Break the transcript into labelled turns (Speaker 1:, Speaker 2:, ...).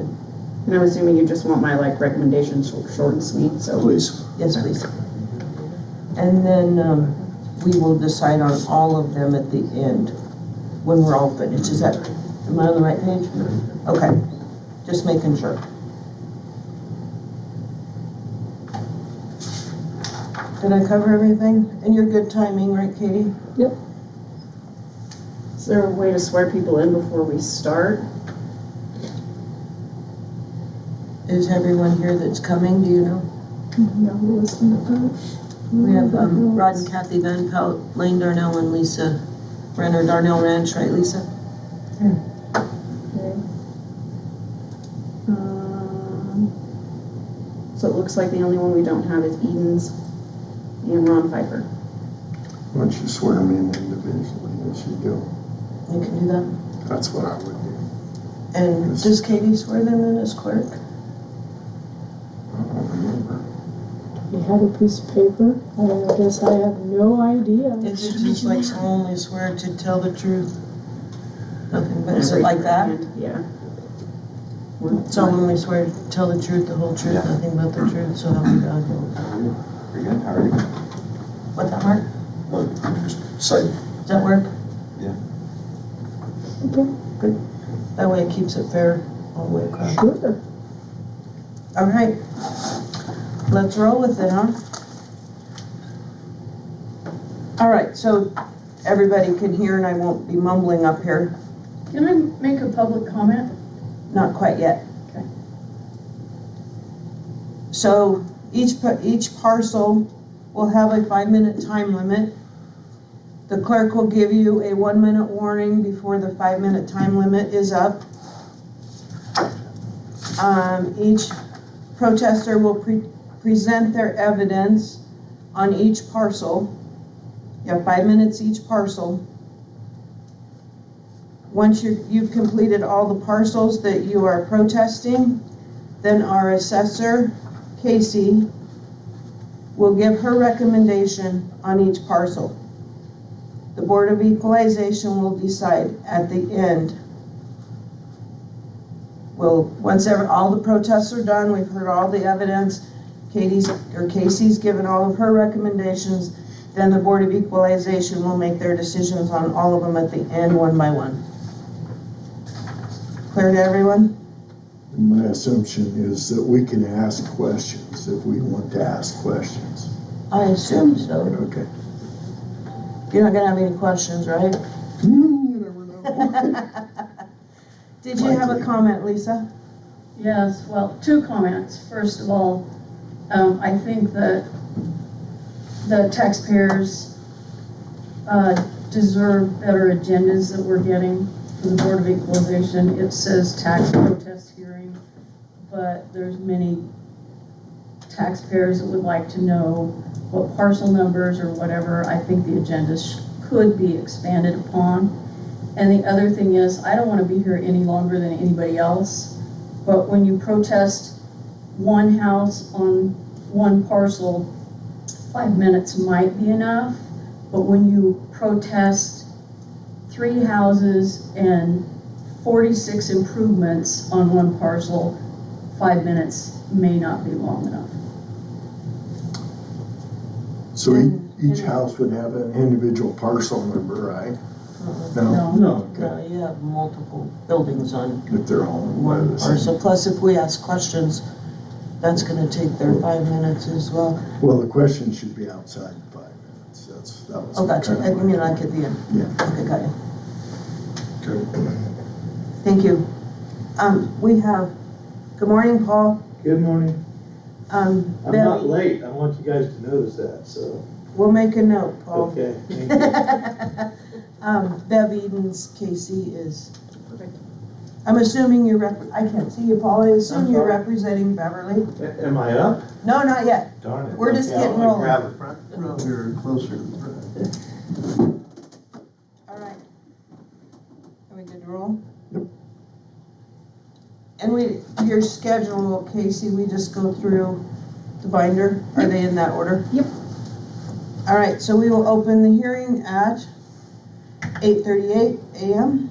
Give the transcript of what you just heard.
Speaker 1: And I'm assuming you just want my like recommendation short short and sweet, so.
Speaker 2: Please.
Speaker 3: Yes, please. And then, um, we will decide on all of them at the end, when we're all finished, is that, am I on the right page? Okay, just making sure. Did I cover everything? And you're good timing, right, Katie?
Speaker 1: Is there a way to swear people in before we start?
Speaker 3: Is everyone here that's coming, do you know?
Speaker 4: No, we listen to that.
Speaker 3: We have, um, Rod and Kathy Van Pelt, Lane Darnell and Lisa Renner, Darnell Ranch, right, Lisa?
Speaker 4: uh,
Speaker 1: Um, So it looks like the only one we don't have is Edens and Ron Piper.
Speaker 2: Why don't you swear them in individually as you go?
Speaker 3: We can do that.
Speaker 2: That's what I would do.
Speaker 3: And
Speaker 2: Yes.
Speaker 3: does Katie swear them in as clerk?
Speaker 2: I don't remember.
Speaker 4: We had a piece of paper, and I guess I have no idea.
Speaker 3: Is it just like solemnly swear to tell the truth? Nothing, but is it like that?
Speaker 1: Yeah.
Speaker 3: Solemnly swear to tell the truth, the whole truth, nothing but the truth, so help me God.
Speaker 5: Pretty good, how are you?
Speaker 3: What that, Mark?
Speaker 2: Say,
Speaker 3: Does that work?
Speaker 5: Yeah.
Speaker 4: Okay.
Speaker 3: Good. That way it keeps it fair all the way across.
Speaker 4: Sure.
Speaker 3: All right. Let's roll with it, huh? All right, so everybody can hear and I won't be mumbling up here.
Speaker 6: Can I make a public comment?
Speaker 3: Not quite yet.
Speaker 6: Okay.
Speaker 3: So each, pa- each parcel will have a five-minute time limit. The clerk will give you a one-minute warning before the five-minute time limit is up. Um, each protester will pre- present their evidence on each parcel. You have five minutes each parcel. Once you- you've completed all the parcels that you are protesting, then our assessor, Casey, will give her recommendation on each parcel. The Board of Equalization will decide at the end. Well, once ever, all the protests are done, we've heard all the evidence, Katie's, or Casey's given all of her recommendations, then the Board of Equalization will make their decisions on all of them at the end, one by one. Clear to everyone?
Speaker 2: My assumption is that we can ask questions if we want to ask questions.
Speaker 3: I assume so.
Speaker 2: Okay.
Speaker 3: You're not gonna have any questions, right?
Speaker 2: Hmm, You never know.
Speaker 3: Did you have a
Speaker 2: Likely.
Speaker 3: comment, Lisa?
Speaker 6: Yes, well, two comments. First of all, um, I think that the taxpayers, uh, deserve better agendas that we're getting for the Board of Equalization. It says tax protest hearing, but there's many taxpayers that would like to know what parcel numbers or whatever. I think the agenda sh- could be expanded upon. And the other thing is, I don't wanna be here any longer than anybody else. But when you protest one house on one parcel, five minutes might be enough. But when you protest three houses and forty-six improvements on one parcel, five minutes may not be long enough.
Speaker 2: So each, each house would have an individual parcel number, right?
Speaker 3: Uh-uh.
Speaker 2: No,
Speaker 6: No,
Speaker 2: no, okay,
Speaker 3: you have multiple buildings on
Speaker 2: if they're all in by the same.
Speaker 3: plus if we ask questions, that's gonna take their five minutes as well.
Speaker 2: Well, the question should be outside in five minutes, that's, that was.
Speaker 3: Oh, gotcha, I
Speaker 2: kind of-
Speaker 3: mean, like at the end.
Speaker 2: Yeah.
Speaker 3: Okay, got you,
Speaker 2: Okay.
Speaker 3: thank you. Um, we have, good morning, Paul,
Speaker 7: Good morning.
Speaker 3: um,
Speaker 7: I'm not
Speaker 3: Billy,
Speaker 7: late. I want you guys to notice that, so,
Speaker 3: we'll make a note, Paul.
Speaker 7: okay. thank you.
Speaker 3: Um, Bev Edens, Casey is. I'm assuming you're rep, I can't see you, Paul, I assume
Speaker 7: I'm
Speaker 3: you're
Speaker 7: sorry.
Speaker 3: representing Beverly?
Speaker 7: A- Am I up?
Speaker 3: No, not yet.
Speaker 7: Darn it.
Speaker 3: We're just
Speaker 7: Okay, I'll
Speaker 3: getting rolling.
Speaker 7: Grab a front row here closer to the front.
Speaker 3: All right. Are we good to roll?
Speaker 2: Yep.
Speaker 3: And we, your schedule, Casey, we just go through the binder, are they in that order?
Speaker 1: Yep.
Speaker 3: All right, so we will open the hearing at eight thirty-eight AM.